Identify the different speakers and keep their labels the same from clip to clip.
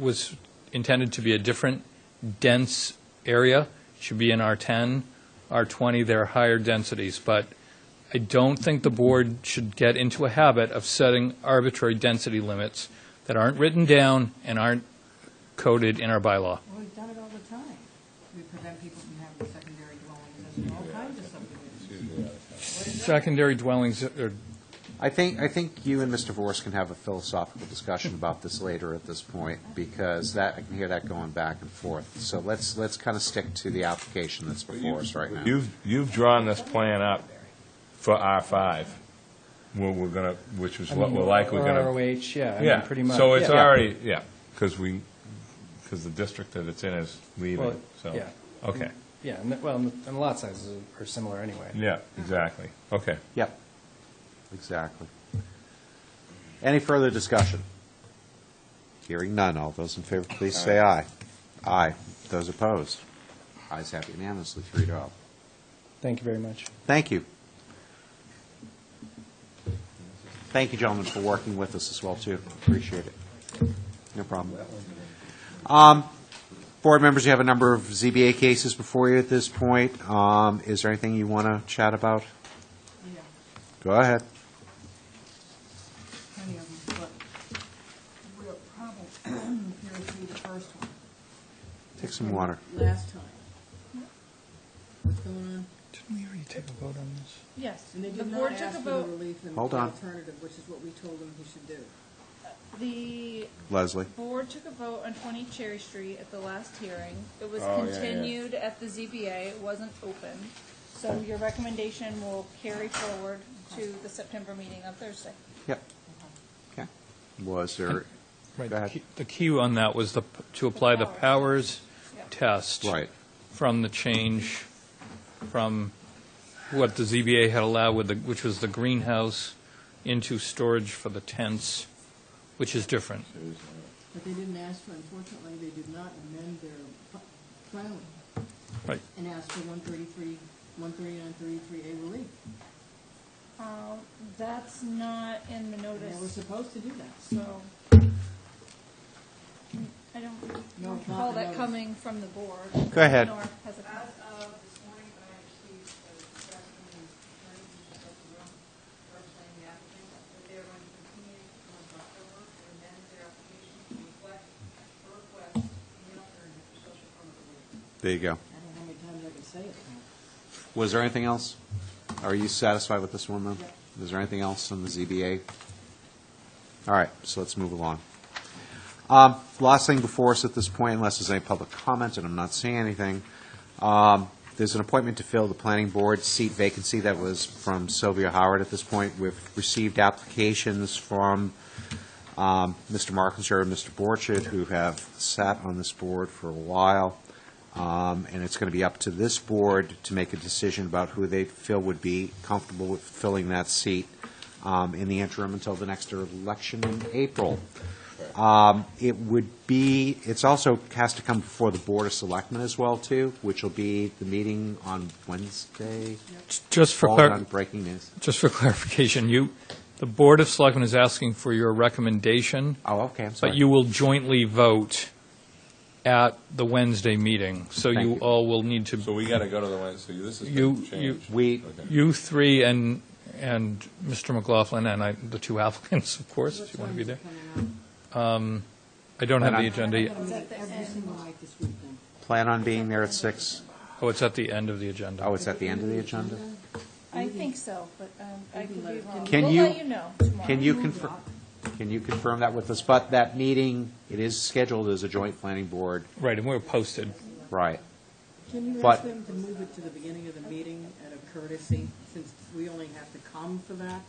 Speaker 1: was intended to be a different dense area, should be in R10, R20, they're higher densities, but I don't think the board should get into a habit of setting arbitrary density limits that aren't written down and aren't coded in our bylaw.
Speaker 2: Well, we've done it all the time. We prevent people from having secondary dwellings and all kinds of subdivisions.
Speaker 1: Secondary dwellings are
Speaker 3: I think, I think you and Mr. Vors can have a philosophical discussion about this later at this point, because that, I can hear that going back and forth. So let's, let's kind of stick to the application that's before us right now.
Speaker 4: You've, you've drawn this plan up for R5, where we're going to, which is what we're likely going to.
Speaker 5: ROH, yeah, I mean,
Speaker 4: Yeah,
Speaker 5: pretty much.
Speaker 4: so it's
Speaker 5: yeah.
Speaker 4: already, yeah, because we, because the district that it's in is
Speaker 5: Well,
Speaker 4: leaving, so.
Speaker 5: yeah.
Speaker 4: Okay,
Speaker 5: Yeah, and, the- well, and the and the lot sizes are similar anyway.
Speaker 4: yeah, exactly, okay.
Speaker 3: Yep, exactly. Any further discussion? Hearing none, all those in favor, please say aye. Aye. Those opposed? Ayes have unanimously, three to oh.
Speaker 5: Thank you very much.
Speaker 3: Thank you. Thank you, gentlemen, for working with us as well, too. Appreciate it. No problem. Um, Board members, you have a number of ZBA cases before you at this point. Um, Is there anything you want to chat about?
Speaker 2: Yeah,
Speaker 3: Go ahead.
Speaker 2: plenty of them, but we're probably here through the first one.
Speaker 3: Take some water.
Speaker 2: Last time. What's going on?
Speaker 5: Didn't we already take a vote on this?
Speaker 6: Yes,
Speaker 2: And they
Speaker 6: the
Speaker 2: did
Speaker 6: board
Speaker 2: not
Speaker 6: took a
Speaker 2: ask for the
Speaker 6: vote,
Speaker 2: relief and the
Speaker 3: Hold on.
Speaker 2: alternative, which is what we told them he should do.
Speaker 6: the
Speaker 3: Leslie?
Speaker 6: board took a vote on 20 Cherry Street at the last hearing. It was
Speaker 4: Oh, yeah, yeah.
Speaker 6: continued at the ZBA, it wasn't open. So your recommendation will carry forward to the September meeting on Thursday.
Speaker 3: Yep. Okay. Was there,
Speaker 1: Right,
Speaker 3: Go
Speaker 1: the
Speaker 3: ahead.
Speaker 1: key- the key on that was the, p- to apply the powers
Speaker 6: Yeah.
Speaker 1: test.
Speaker 3: Right.
Speaker 1: From the change, from what the ZBA had allowed with the, which was the greenhouse, into storage for the tents, which is different.
Speaker 2: But they didn't ask for, unfortunately, they did not amend their pl- plan
Speaker 1: Right.
Speaker 2: and ask for 133, 139, 33A relief.
Speaker 6: Um, That's not in the
Speaker 2: And They were
Speaker 6: notice,
Speaker 2: supposed to do that.
Speaker 6: so I don't
Speaker 2: No, it's not
Speaker 6: recall
Speaker 2: in
Speaker 6: that
Speaker 2: notice.
Speaker 6: coming from the board.
Speaker 3: Go ahead.
Speaker 6: Nor has it come.
Speaker 7: As of this morning, when I received the discussion and attorney who was at the room, representing the applicant, that they are going to continue until October to amend their application to reflect the request in the alternative for social permit relief.
Speaker 3: there you go.
Speaker 2: I don't know how many times I can say it now.
Speaker 3: Was there anything else? Are you satisfied with this one, though?
Speaker 2: Yep.
Speaker 3: Is there anything else on the ZBA? All right, so let's move along. Um, Last thing before us at this point, unless there's any public comment, and I'm not seeing anything, um, there's an appointment to fill the planning board seat vacancy that was from Sylvia Howard at this point. We've received applications from um, Mr. Markinser and Mr. Borchardt, who have sat on this board for a while. Um, And it's going to be up to this board to make a decision about who they feel would be comfortable with filling that seat um, in the interim until the next election in April. Um, It would be, it's also has to come before the Board of Selectmen as well, too, which will be the meeting on Wednesday.
Speaker 1: Just for,
Speaker 3: All
Speaker 1: clar-
Speaker 3: on breaking news.
Speaker 1: just for clarification, you, the Board of Selectmen is asking for your recommendation,
Speaker 3: Oh, okay, I'm sorry.
Speaker 1: but you will jointly vote at the Wednesday meeting, so
Speaker 3: Thank
Speaker 1: you
Speaker 3: you.
Speaker 1: all will need to
Speaker 4: So we got to go to the one, so this is
Speaker 1: You-
Speaker 4: the
Speaker 1: you-
Speaker 4: change.
Speaker 3: We-
Speaker 4: Okay.
Speaker 1: You three and, and Mr. McLaughlin and I, the two applicants, of course, if you want to be there. I don't have the
Speaker 3: And I-
Speaker 1: agenda yet.
Speaker 2: I'm
Speaker 6: Is
Speaker 2: gonna
Speaker 6: that
Speaker 2: meet
Speaker 6: the
Speaker 2: every
Speaker 6: end?
Speaker 2: single night this week then.
Speaker 3: Plan on being there at six.
Speaker 1: Oh, it's at the end of the agenda.
Speaker 3: Oh, it's at the end of the agenda?
Speaker 6: I think so, but um, I could be wrong.
Speaker 3: Can
Speaker 6: We'll
Speaker 3: you-
Speaker 6: let you know tomorrow.
Speaker 3: Can you confirm, can you confirm that with us? But that meeting, it is scheduled as a joint planning board,
Speaker 1: Right, and we're posted.
Speaker 3: right?
Speaker 2: Can you
Speaker 3: But-
Speaker 2: ask them to move it to the beginning of the meeting out of courtesy, since we only have to come for that?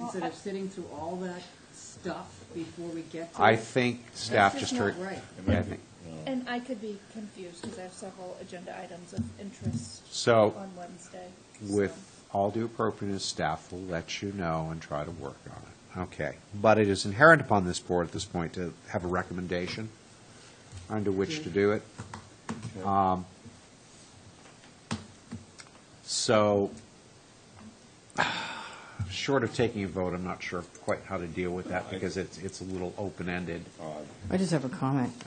Speaker 2: Instead of sitting through all that stuff before we get to it?
Speaker 3: I think staff
Speaker 2: That's
Speaker 3: just
Speaker 2: just
Speaker 3: heard.
Speaker 2: not right.
Speaker 3: Yeah, I think-
Speaker 6: And I could be confused because I have several agenda items of interest
Speaker 3: So
Speaker 6: on Wednesday.
Speaker 3: with
Speaker 6: so.
Speaker 3: all due appropriateness, staff will let you know and try to work on it. Okay. But it is inherent upon this board at this point to have a recommendation under which to do it. Um, So short of taking a vote, I'm not sure quite how to deal with that because it's, it's a little open-ended.
Speaker 8: I just have a comment.